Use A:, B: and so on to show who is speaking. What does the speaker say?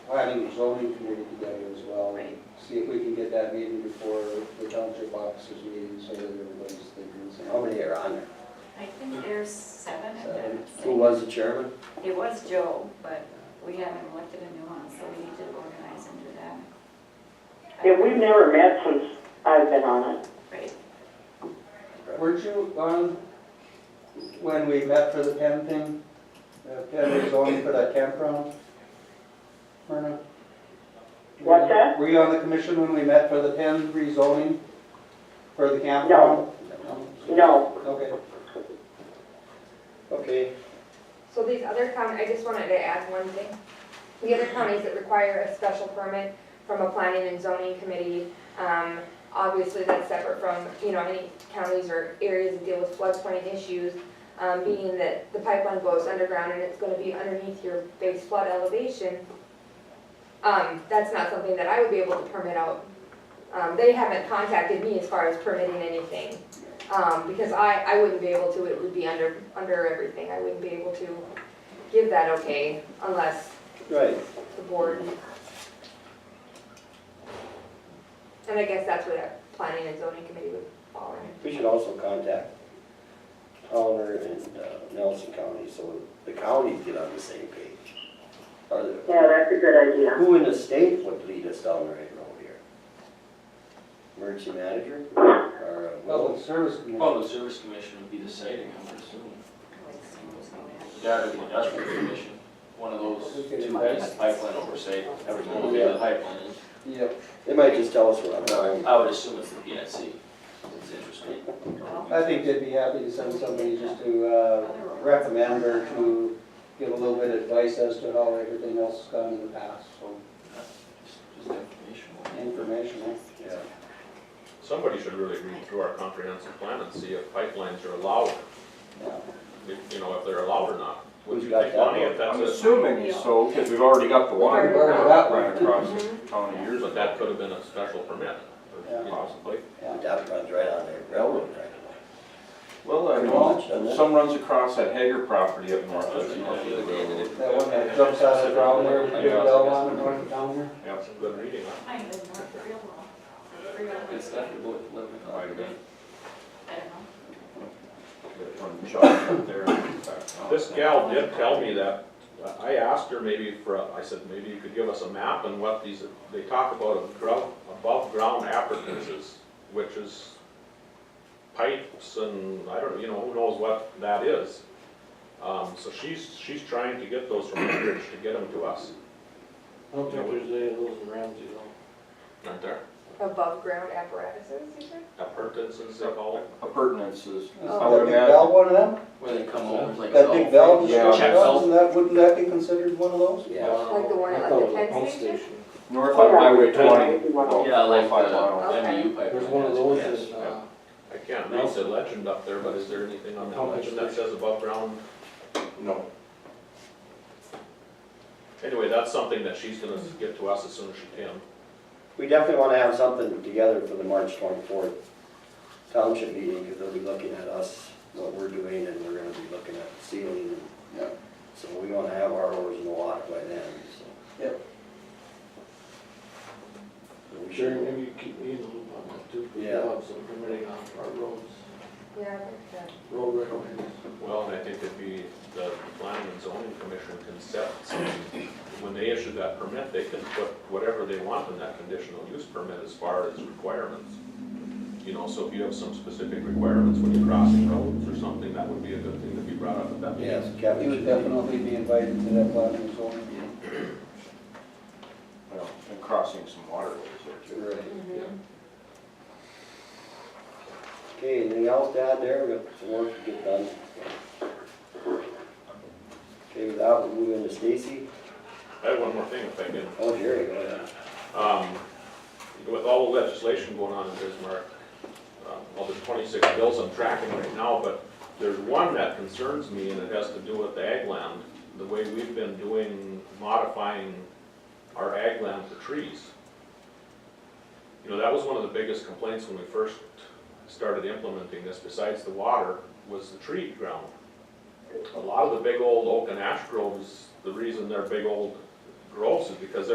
A: having a zoning committee together as well.
B: Right.
A: See if we can get that meeting before the township officers meeting, so that everybody's thinking, so how many are on there?
B: I think there's seven of them.
A: Seven.
C: Who was the chairman?
B: It was Joe, but we haven't elected a new one, so we need to organize and do that.
D: Yeah, we've never met since I've been on it.
B: Right,
A: Weren't you on when we met for the pen thing? The pen was only for that campground? Myrna?
D: What's that?
A: Were you on the commission when we met for the pen rezoning for the campground? No.
D: No,
A: Okay.
C: Okay,
E: So these other counties, I just wanted to add one thing. The other counties that require a special permit from a planning and zoning committee, um, obviously that's separate from, you know, any counties or areas that deal with floodplain issues, um, being that the pipeline goes underground and it's gonna be underneath your base flood elevation. Um, that's not something that I would be able to permit out. Um, they haven't contacted me as far as permitting anything. Um, because I, I wouldn't be able to, it would be under, under everything, I wouldn't be able to give that okay unless
A: Right.
E: the board. And I guess that's what a planning and zoning committee would fall in.
C: we should also contact Towner and uh, Nelson County, so the counties get on the same page. Are there-
D: yeah, that's a good idea.
C: Who in the state would lead us down the right road here? Emergency manager or? uh,
A: Well, the service committee.
F: Well, the service commission would be the siting, I would assume.
B: like, so it's gonna happen.
F: That or the industrial commission, one of those two guys, pipeline oversight,
A: Oh,
F: everyone will be the pipeline.
A: Yep.
C: They might just tell us we're on time.
F: I would assume it's the PNC, it's interesting.
A: I think they'd be happy to send somebody just to, uh, recommend or to give a little bit of advice as to how everything else has gone in the past, so
F: Just just information.
A: informational.
C: Yeah.
G: Somebody should really read through our comprehensive plan and see if pipelines are allowed,
A: yeah.
G: if- you know, if they're allowed or not. Would
C: Who's
G: you
C: got
G: take
C: that
G: money
C: one?
G: if that's
H: I'm
G: a,
H: assuming so, because we've already got the
E: We've
H: water
E: already got
A: that
H: line
A: one.
H: across the county years
G: but that could have been a special permit, or
A: Yeah.
G: possibly.
A: Yeah.
C: That runs right on the railroad track.
H: Well, I
C: Pretty much, doesn't
H: know,
C: it?
H: some runs across that Hager property up north, that's north of the railroad.
A: That one that jumps out of the ground there, with the big bell on the north down there.
H: Yep.
G: That's a good reading, huh?
B: Kind of not real well. Real,
F: It's definitely living.
H: Might have been.
B: I don't know.
H: That one shot up there and back down.
G: This gal did tell me that, uh, I asked her maybe for, a- I said, maybe you could give us a map and what these, they talk about of ground, above ground appurtenances, which is pipes and, I don't, know, you know, who knows what that is. Um, so she's, she's trying to get those from Anchorage to get them to us,
I: I don't think there's any of those in Ramsey though.
G: aren't there?
E: Above ground apparatuses, you said?
G: Appurtenances, they call it.
H: Appurtenances.
A: Is that big bell one of them?
F: Where they come over, it's like.
A: That
I: Oh,
A: big bell,
H: Yeah.
A: just
F: Check
A: goes, isn't that, wouldn't that be considered one of those?
C: Yeah.
E: Like the one
I: Oh, I
E: at
I: thought it was
E: like the
I: a
E: Penn
I: pump
E: station?
H: North of Highway twenty. about
F: oh, Yeah, like
H: four or five
F: the-
H: miles.
F: MU pipeline.
I: There's one of those
F: Yes.
I: in, uh,
G: I can't read the legend up there, but is there anything on that legend that says above ground?
H: No.
G: Anyway, that's something that she's gonna get to us as soon as she can.
C: We definitely want to have something together for the March 24th township meeting, because they'll be looking at us, what we're doing, and we're gonna be looking at ceiling.
A: Yeah.
C: So we want to have our oars in the water by then, so.
A: Yep.
C: So We
I: Jerry,
C: should,
I: maybe you keep me in the loop on that too. 'cause we
C: Yeah.
I: have Some permitting on our roads,
E: Yeah, I think that.
I: road right away.
G: Well, and I think it'd be, the planning and zoning commission can set, some- when they issue that permit, they can put whatever they want in that conditional use permit as far as requirements. You know, so if you have some specific requirements when you're crossing roads or something, that would be a good thing to be brought up at that meeting.
C: yes,
A: You
C: Kevin
A: would
C: should be.
A: definitely be invited to that platinum zone.
H: Well, and crossing some waterways there too.
C: Right.
E: Mhm.
C: Okay, anything else to add there? We got some work to get done. Okay, with that, we'll move into Stacy.
G: I have one more thing if I can.
C: Oh, Jerry, go ahead.
G: Um, With all the legislation going on in Bismarck, uh, well, there's 26 bills I'm tracking right now, but there's one that concerns me, and it has to do with the ag land, the way we've been doing, modifying our ag land for trees. You know, that was one of the biggest complaints when we first started implementing this, besides the water, was the tree ground. A lot of the big old oak and ash groves, the reason they're big old groves is because they're